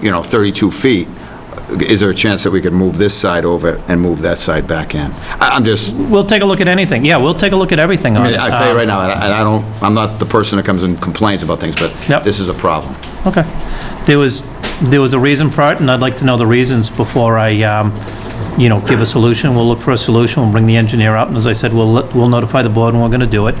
you know, 32 feet, is there a chance that we could move this side over and move that side back in? I- I'm just, We'll take a look at anything. Yeah, we'll take a look at everything on it. Um, I tell you right now, and I don't, I'm not the person that comes and complains about things, but Yep. this is a problem. Okay. There was, there was a reason for it, and I'd like to know the reasons before I, um, you know, give a solution. We'll look for a solution, we'll bring the engineer out, and as I said, we'll, let- we'll notify the board, and we're gonna do it.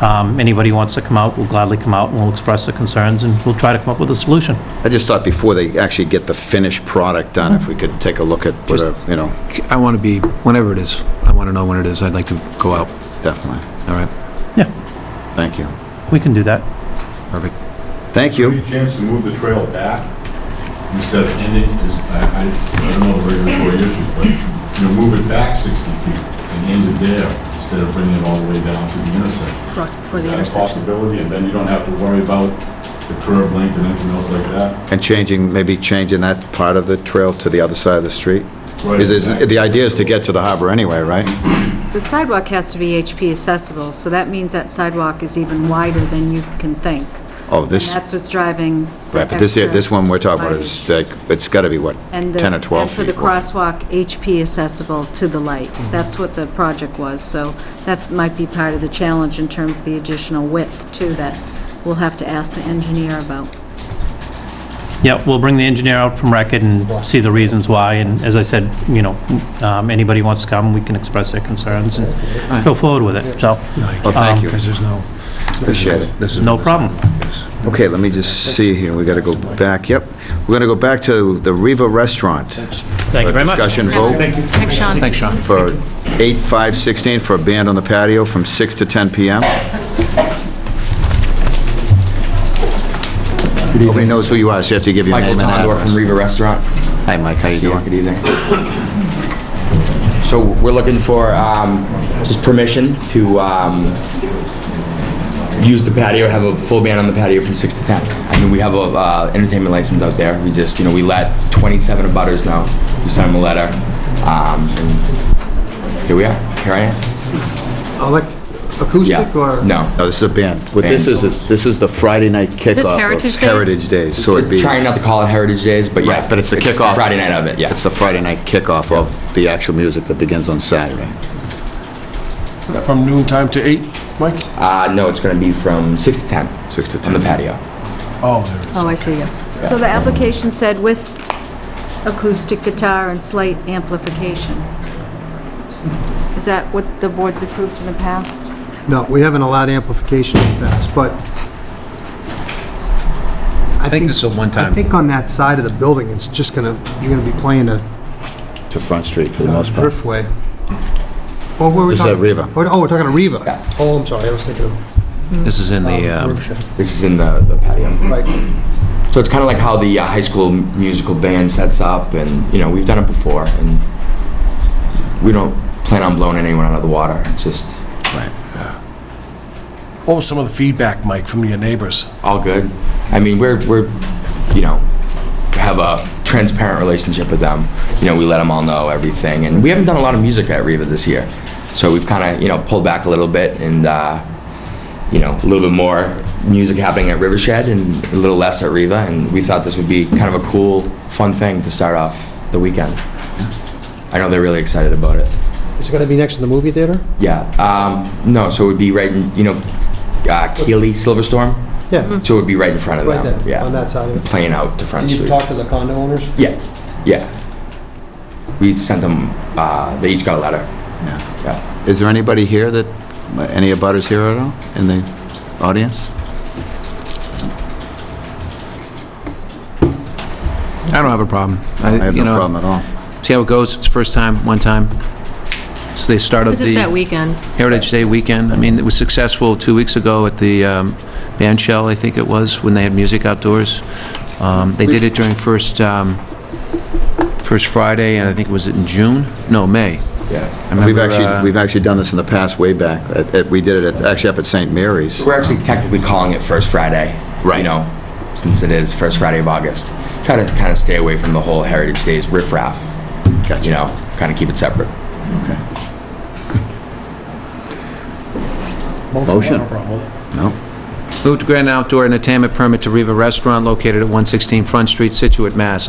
Um, Anybody who wants to come out, will gladly come out, and we'll express their concerns, and we'll try to come up with a solution. I just thought before they actually get the finished product done, if we could take a look at, what a- you know, I want to be, whenever it is, I want to know when it is, I'd like to go out, definitely. all right? Yeah, Thank you. we can do that. Perfect. Thank you. Any chance to move the trail back instead of ending, because I, I I don't know the regulatory issues, but, you know, move it back 60 feet and end it there instead of bringing it all the way down to the intersection. cross before the Is that a intersection. possibility? And then you don't have to worry about the curb length and anything else like that? And changing, maybe changing that part of the trail to the other side of the street? Right. Is- is- The idea is to get to the harbor anyway, right? The sidewalk has to be HP accessible, so that means that sidewalk is even wider than you can think. Oh, And this, that's what's driving the right, but this, here- extra this one we're talking about is mileage. like, it's got to be what, And the- 10 or 12 feet? And for the wide. Mm-hmm. crosswalk, HP accessible to the light. That's what the project was, so that's, might be part of the challenge in terms of the additional width, too, that we'll have to ask the engineer about. Yeah, we'll bring the engineer out from Racket and see the reasons why, and as I said, you know, um, anybody who wants to come, we can express their concerns and go forward with it, so. Well, Oh, thank you. Because there's no... Appreciate it. This is- No problem. Okay, let me just see here, we got to go back, yep. We're going to go back to the Riva Restaurant. Thank you very much. Discussion vote Thanks, Sean. Thanks, Sean. for 8/5/16 for a band on the patio from 6 to 10 PM. Nobody knows who you are, so you have to give your Michael name and Tondor from address. Riva Restaurant. Hi, Mike, how you See ya. doing? Good evening. So we're looking for um, just permission to um, use the patio, have a full band on the patio from 6 to 10. I mean, we have a uh, entertainment license out there. We just, you know, we let 27 abutters know. We sent them a letter. um, and Here we are. Here I am. Elec- Yeah. Acoustic or? No. No, this is a band. What this is, is this is the Friday night kickoff of Heritage Days? Heritage Days, so it'd be... Trying not to call it Heritage Days, but yeah. Right, but it's the kickoff. Friday night of it, yeah. It's the Friday night kickoff of the actual music that begins on Saturday. From noon time to eight, Mike? Uh, No, it's going to be from 6 to 10. 6 to On 10. the patio. Oh, there it is. Oh, I see, yeah. So the application said with acoustic guitar and slight amplification. Is that what the board's approved in the past? No, we haven't allowed amplification in the past, but... I think this is a one-time. I think on that side of the building, it's just gonna, you're gonna be playing a To Front Street for the most part. driftway. Or where are we This is at talking? Riva. Oh, We're- Oh, we're talking to Riva? Yeah. Oh, I'm sorry, I was thinking of... This is in the, uh, um, Berkshire. This is in the the patio. Right. So it's kind of like how the uh, high school musical band sets up, and you know we've done it before, and we don't plan on blowing anyone out of the water. It's just What was some of the feedback, Mike, from your neighbors? all good. I mean, we're we're you know have a transparent relationship with them. You know, we let them all know everything, and we haven't done a lot of music at Riva this year, so we've kind of you know pulled back a little bit and. Uh, you know, a little bit more music happening at Rivershed and a little less at Riva, and we thought this would be kind of a cool, fun thing to start off the weekend. I know they're really excited about it. Is it gonna be next to the movie theater? Yeah, um, no, so it would be right in, you know, uh, Keely Silverstorm, Yeah, so it would be right in front of right them. there, Mm-hmm. yeah, on that side of it. Playing out to Front And Street. you've talked to the condo owners? yeah, yeah. We sent them. Uh, they each got a letter. Yeah. Yeah. Is there anybody here that, uh, any abutters here at all, in the audience? I don't have a problem. I have you no know, problem at all. See how it goes, it's first time, one time. So they start up This is that the weekend. Heritage Day weekend. I mean, it was successful two weeks ago at the um, band shell, I think it was, when they had music outdoors. Um, They did it during first, um, first Friday, and I think, was it in June? No, May. Yeah. I We've remember, actually, uh, we've actually done this in the past, way back. At- at- We did it, at- actually up at St. Mary's. We're actually technically calling it First Friday. Right. You know, since it is first Friday of August, try to kind of stay away from the whole Heritage Days riffraff. Gotcha. You know, kind of keep it separate. Motion? No problem. No? Move to grant an outdoor entertainment permit to Riva Restaurant located at 116 Front Street, Situate, Mass.